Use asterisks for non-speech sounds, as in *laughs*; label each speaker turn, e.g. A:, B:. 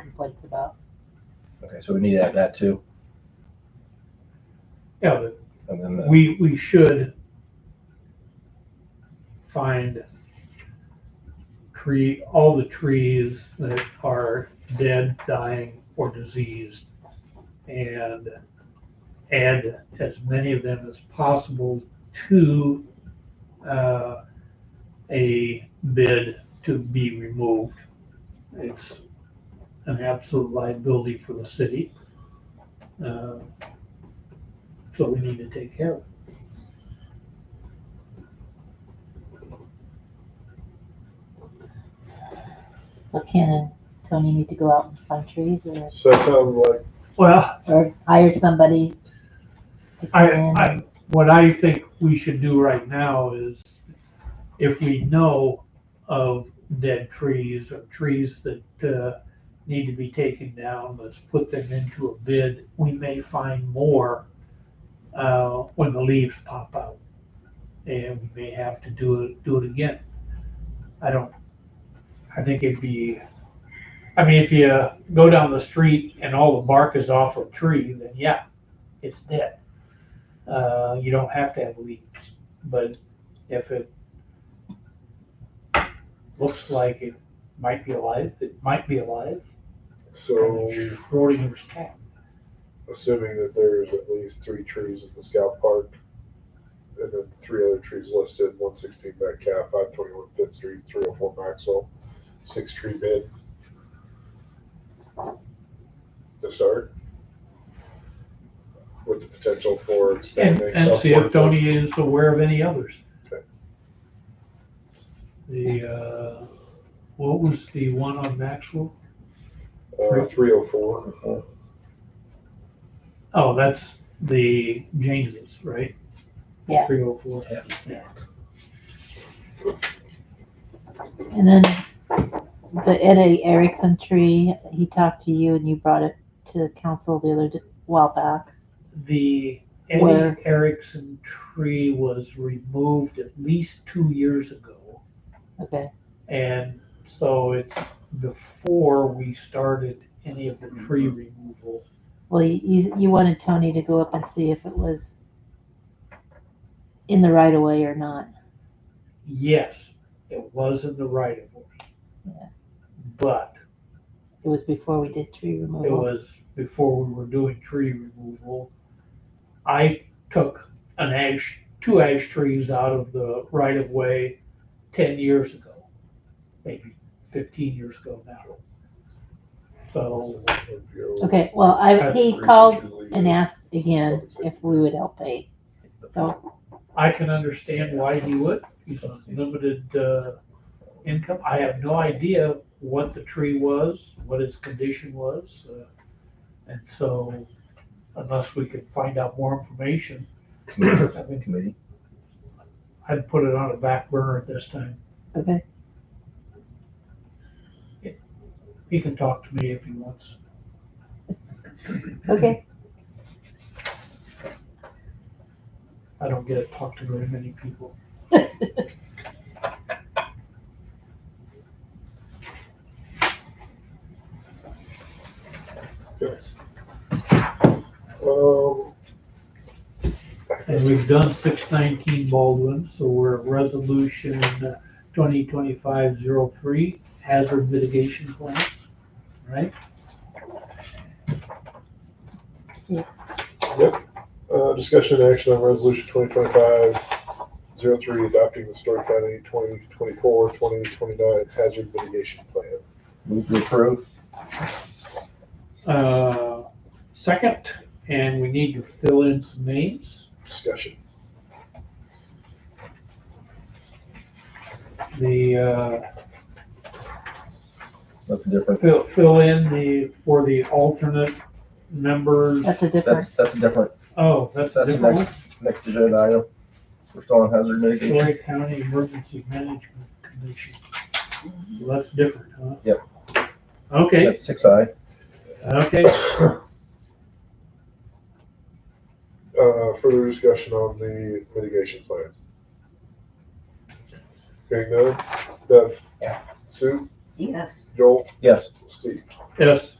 A: complaints about.
B: Okay, so we need to add that too,
C: Yeah, but
B: and then the,
C: we, we should find tree, all the trees that are dead, dying, or diseased, and add as many of them as possible to uh, a bid to be removed. It's an absolute liability for the city. Uh, So we need to take care of it.
A: So Ken and Tony need to go out and find trees or,
D: So that sounds like,
C: Well,
A: or hire somebody to
C: I,
A: come in.
C: I, what I think we should do right now is if we know of dead trees or trees that, uh, need to be taken down, let's put them into a bid. We may find more, uh, when the leaves pop out. And we may have to do it, do it again. I don't, I think it'd be, I mean, if you go down the street and all the bark is off a tree, then yeah, it's dead uh, you don't have to have leaves. But if it looks like it might be alive, it might be alive.
D: so
C: Schrodinger's cat.
D: assuming that there's at least three trees in the scout park and then three other trees listed, one sixteen Metcalf, five twenty-one Fifth Street, three oh four Maxwell, six tree bid. To start. With the potential for
C: And,
D: expanding.
C: and see if
D: upwards of-
C: Tony is aware of any others.
D: Okay.
C: The, uh, what was the one on Maxwell?
D: Uh, three oh four,
C: Oh, that's the James's, right?
A: Yeah.
C: Three oh four.
A: And then the Eddie Erickson tree, he talked to you and you brought it to council the other d- while back.
C: The Eddie
A: Where?
C: Erickson tree was removed at least two years ago.
A: Okay,
C: And so it's before we started any of the tree removal.
A: well, you- you, you wanted Tony to go up and see if it was in the right of way or not.
C: Yes, it was in the right of
A: Yeah.
C: way. But
A: It was before we did tree
C: it
A: removal.
C: was before we were doing tree removal. I took an ash, two ash trees out of the right of way ten years ago, maybe fifteen years ago now. So,
A: Okay, well, I,
C: I
A: he called and asked again if we would help pay. So,
C: I can understand why he would. He's on limited uh, income. I have no idea what the tree was, what its condition was. uh, And so unless we can find out more information,
B: committee-
C: I mean,
B: committee,
C: I'd put it on a back burner at this time.
A: okay,
C: He can talk to me if he wants.
A: *laughs* okay.
C: I don't get to talk to very many people.
D: Um,
C: And we've done six nineteen Baldwin, so we're at resolution uh, twenty twenty-five zero three hazard mitigation plan, right?
D: Uh, discussion and action on resolution 2025 03 adopting the Story County 2024 2029 hazard mitigation plan.
B: move to approve,
C: Uh, second, and we need to fill in some names.
D: Discussion. *laughs*
C: The, uh,
B: that's a different,
C: fill, fill in the, for the alternate members.
A: That's a different,
B: that's, that's a different,
C: Oh, that's a
B: that's the
C: different one.
B: next, next agenda item. We're still on hazard mitigation,
C: Story County Emergency Management Commission. So That's different, huh?
B: Yep.
C: Okay,
B: that's six I,
C: okay.
D: Uh, further discussion on the mitigation plan. Hearing none, Deb?
B: Yeah.
D: Sue?
E: Yes.
D: Joel?
B: yes,
D: Steve?
C: Yes.